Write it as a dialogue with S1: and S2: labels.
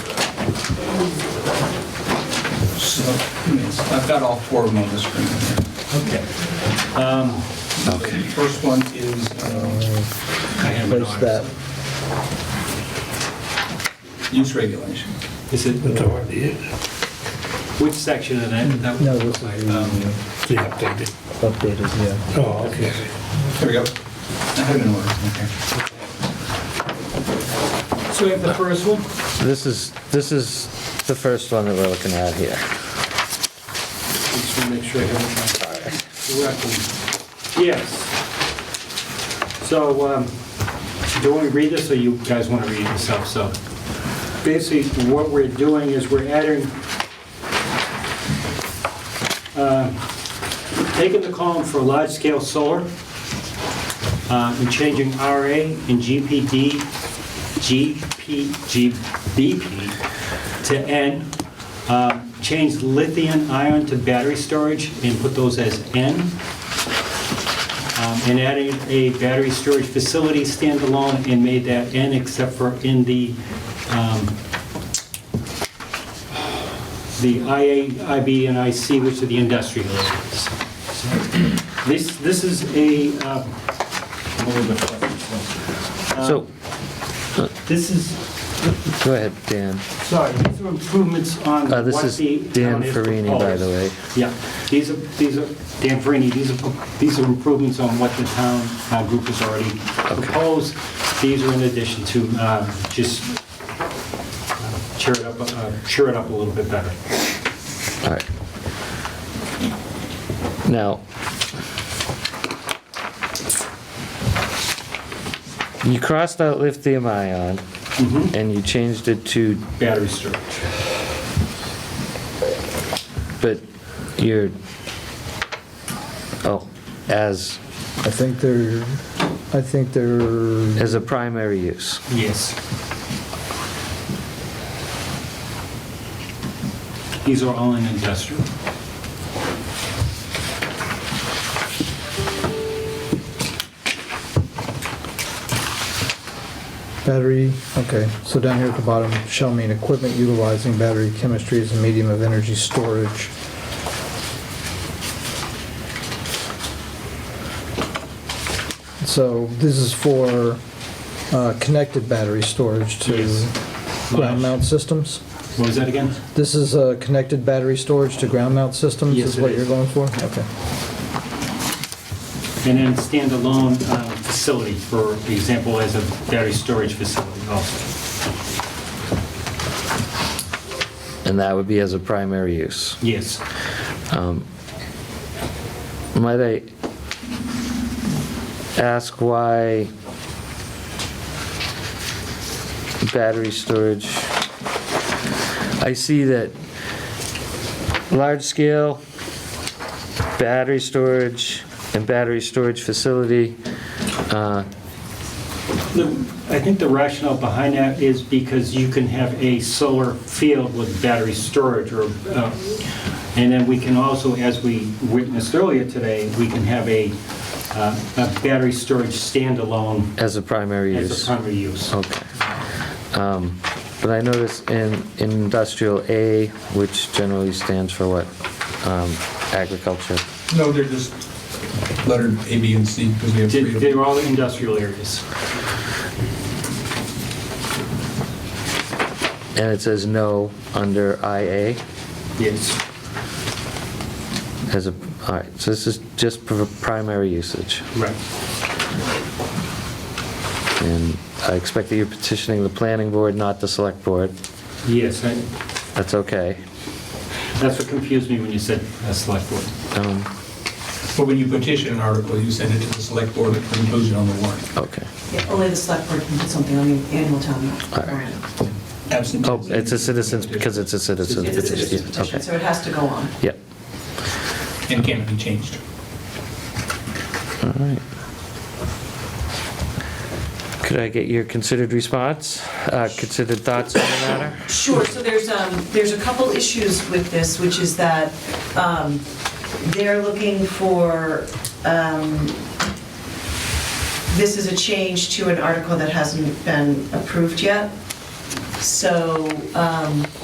S1: so, I mean, it's- I've got all four of them on the screen here.
S2: Okay.
S1: The first one is, uh,
S3: Where's that?
S1: use regulation.
S2: Is it,
S4: That's already it.
S2: which section of that? that was-
S3: No, this is the
S2: Um,
S4: The updated.
S3: updated, yeah.
S4: Oh, okay.
S1: Here we go. I have it in order, okay.
S2: So we have the first one?
S5: This is, this is the first one that we're looking at here.
S2: Just want to make sure I have it right. Correctly. Yes. So, um, do you want to read this, or you guys want to read it yourself? So, basically, what we're doing is we're adding, uh, taking the column for large-scale solar, uh, and changing RA and GPD, GP, GBP to N, uh, change lithium ion to battery storage and put those as N, Um, and added a battery storage facility standalone and made that N except for in the, um, the IA, IB, and IC, which are the industrial areas. So This, this is a, uh, I'm a little bit fuzzy, so, uh,
S5: So,
S2: This is,
S5: go ahead, Dan.
S2: sorry, these are improvements on
S5: Uh,
S2: what the...
S5: this is Dan
S2: town has
S5: Farini, by the
S2: proposed.
S5: way.
S2: Yeah, these are, these are, Dan Farini, these are, these are improvements on what the town uh, group has already proposed. These are in addition to uh, just uh, cheer it up, uh, cheer it up a little bit better.
S5: All right. Now, you crossed out lithium ion and you changed it to,
S2: Battery storage.
S5: but you're, oh, as,
S3: I think they're, I think they're,
S5: as a primary use.
S2: Yes. These are all in industrial.
S3: battery, okay, so down here at the bottom, shall mean equipment utilizing battery chemistry as a medium of energy storage. So this is for uh, connected battery storage to
S2: Yes.
S3: ground mount systems?
S2: What was that again?
S3: This is a connected battery storage to ground mount systems
S2: Yes,
S3: is
S2: it
S3: what
S2: is.
S3: you're going for? Okay.
S2: And then standalone uh, facility, for example, as a battery storage facility also.
S5: And that would be as a primary use.
S2: Yes.
S5: Might I ask why battery storage? I see that large-scale battery storage and battery storage facility, uh,
S2: The- I think the rationale behind that is because you can have a solar field with battery storage or, uh, and then we can also, as we witnessed earlier today, we can have a, uh, a battery storage standalone
S5: as a primary use.
S2: as a primary use.
S5: Okay. Um, But I notice in in industrial A, which generally stands for what? Um, Agriculture.
S1: No, they're just lettered A, B, and C, because we have three
S2: Did-
S1: of them.
S2: They're all industrial areas.
S5: And it says no under IA
S2: Yes.
S5: as a, all right, so this is just for primary usage.
S2: Right.
S5: And I expect that you're petitioning the planning board, not the select board.
S2: Yes, I-
S5: That's okay.
S2: that's what confused me when you said uh, select board.
S5: Um,
S1: But when you petition an article, you send it to the select board for inclusion on the warrant.
S5: Okay.
S6: Yeah, Only the select board can put something on the annual town
S5: All right.
S6: warrant.
S1: Absent.
S5: Oh, it's a citizen's, because it's a citizen's
S6: It's a citizen's
S5: petition.
S6: petition,
S5: Okay.
S6: so it has to go on.
S5: Yeah.
S1: And can't be changed.
S5: All right. Could I get your considered response, uh, considered thoughts on the matter?
S6: Sure, so there's, um, there's a couple issues with this, which is that, um, they're looking for, um, this is a change to an article that hasn't been approved yet. So, um,